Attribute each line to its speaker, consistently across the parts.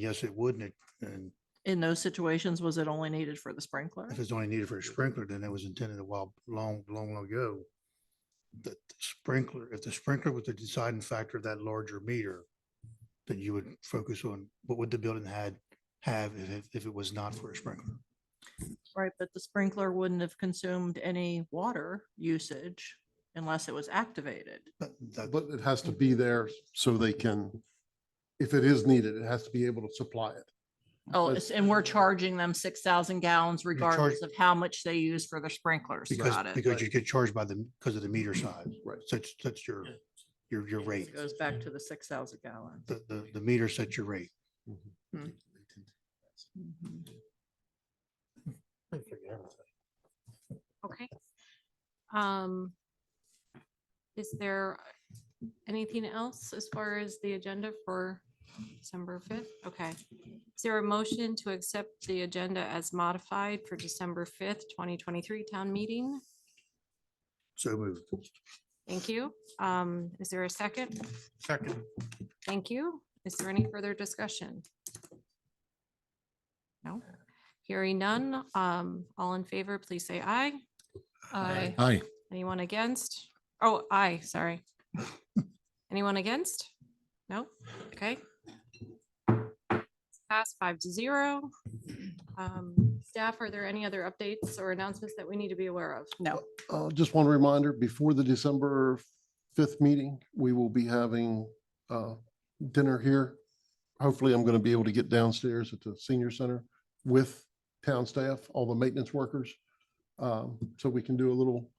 Speaker 1: Yes, it would, and it- and
Speaker 2: In those situations, was it only needed for the sprinkler?
Speaker 1: if it's only needed for a sprinkler, then it was intended a while, long, long ago. The sprinkler, if the sprinkler was the deciding factor of that larger meter, then you would focus on what would the building had, have if, it- if it was not for a sprinkler?
Speaker 2: Right, but the sprinkler wouldn't have consumed any water usage unless it was activated.
Speaker 1: But that,
Speaker 3: But it has to be there so they can, if it is needed, it has to be able to supply it.
Speaker 2: Oh,
Speaker 3: But-
Speaker 2: it's- and we're charging them six thousand gallons
Speaker 1: charge-
Speaker 2: regardless of how much they use for their sprinklers.
Speaker 1: because,
Speaker 2: Got it.
Speaker 1: because you get charged by the, because of the meter size.
Speaker 3: Right.
Speaker 1: Such, such your, your, your rate.
Speaker 2: It Goes back to the six thousand gallons.
Speaker 1: The, the, the meter sets your rate.
Speaker 2: Mhm.
Speaker 4: Okay. Um, is there anything else as far as the agenda for December fifth? Okay. Is there a motion to accept the agenda as modified for December fifth, twenty twenty-three town meeting?
Speaker 1: So moved.
Speaker 4: Thank you. Um, is there a second?
Speaker 1: Second.
Speaker 4: Thank you. Is there any further discussion? No, hearing none. Um, all in favor, please say aye.
Speaker 2: Aye.
Speaker 3: Aye.
Speaker 4: Anyone against? Oh, aye, sorry. Anyone against? No? Okay. Pass five to zero. Um, Staff, are there any other updates or announcements that we need to be aware of?
Speaker 2: No,
Speaker 3: Uh, just one reminder, before the December fifth meeting, we will be having, uh, dinner here. Hopefully, I'm going to be able to get downstairs at the senior center with town staff, all the maintenance workers. Um, so we can do a little,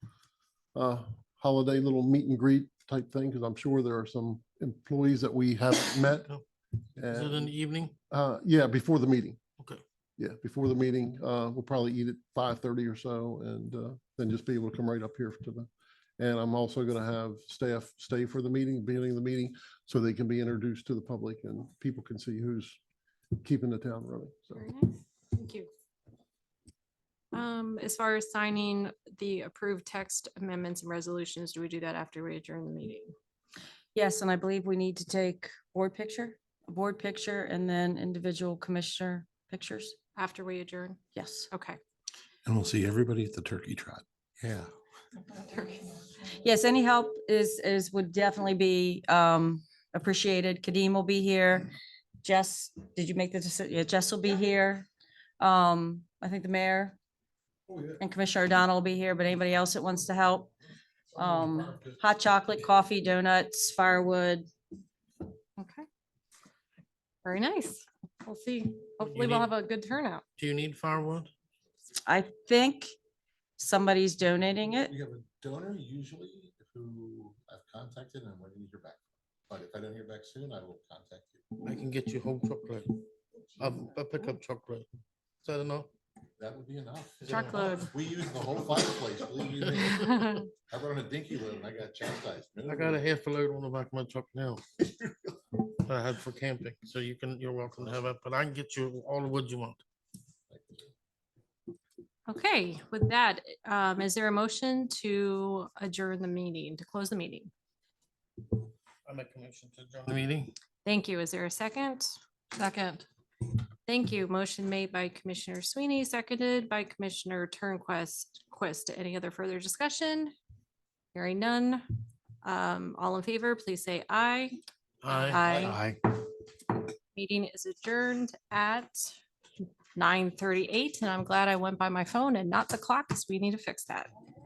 Speaker 3: uh, holiday, little meet and greet type thing, because I'm sure there are some employees that we haven't met.
Speaker 5: Is it in
Speaker 3: And,
Speaker 5: the evening?
Speaker 3: uh, yeah, before the meeting.
Speaker 5: Okay.
Speaker 3: Yeah, before the meeting, uh, we'll probably eat at five thirty or so and, uh, then just be able to come right up here to the. And I'm also gonna have staff stay for the meeting, beginning of the meeting, so they can be introduced to the public and people can see who's keeping the town running. So
Speaker 4: Very nice. Thank you. Um, As far as signing the approved text amendments and resolutions, do we do that after we adjourn the meeting?
Speaker 6: Yes, and I believe we need to take board picture, a board picture, and then individual commissioner pictures.
Speaker 4: After we adjourn?
Speaker 6: Yes.
Speaker 4: Okay.
Speaker 7: And we'll see everybody at the turkey trot. Yeah.
Speaker 6: Yes, any help is, is, would definitely be um appreciated. Kadeem will be here. Jess, did you make the decision? Yeah, Jess will be here. Um, I think the mayor and Commissioner O'Donnell will be here, but anybody else that wants to help? Um, hot chocolate, coffee, donuts, firewood.
Speaker 4: Okay. Very nice. We'll see. Hopefully
Speaker 5: you
Speaker 4: we'll
Speaker 5: need-
Speaker 4: have a good turnout.
Speaker 5: Do you need firewood?
Speaker 6: I think somebody's donating it.
Speaker 8: We have a donor usually who I've contacted and I'm waiting to hear back. But if I don't hear back soon, I will contact you.
Speaker 5: I can get you whole chocolate. I'll, I'll pick up chocolate. Is that enough?
Speaker 8: That would be enough.
Speaker 5: Is that enough?
Speaker 4: Truckload.
Speaker 8: We use the whole fireplace, believe you me.
Speaker 4: All
Speaker 8: I run a dinky room and I got chastised.
Speaker 5: I got a half a load on the back of my truck now. that I had for camping, so you can, you're welcome to have it, but I can get you all the wood you want.
Speaker 4: Okay, with that, um, is there a motion to adjourn the meeting, to close the meeting?
Speaker 5: I make a motion to adjourn the meeting.
Speaker 4: Thank you. Is there a second? Second. Thank you. Motion made by Commissioner Sweeney, seconded by Commissioner Turnquest. Quest, any other further discussion? Hearing none. Um, all in favor, please say aye.
Speaker 5: Aye.
Speaker 1: Aye.
Speaker 4: Meeting is adjourned at nine thirty-eight, and I'm glad I went by my phone and not the clock, because we need to fix that.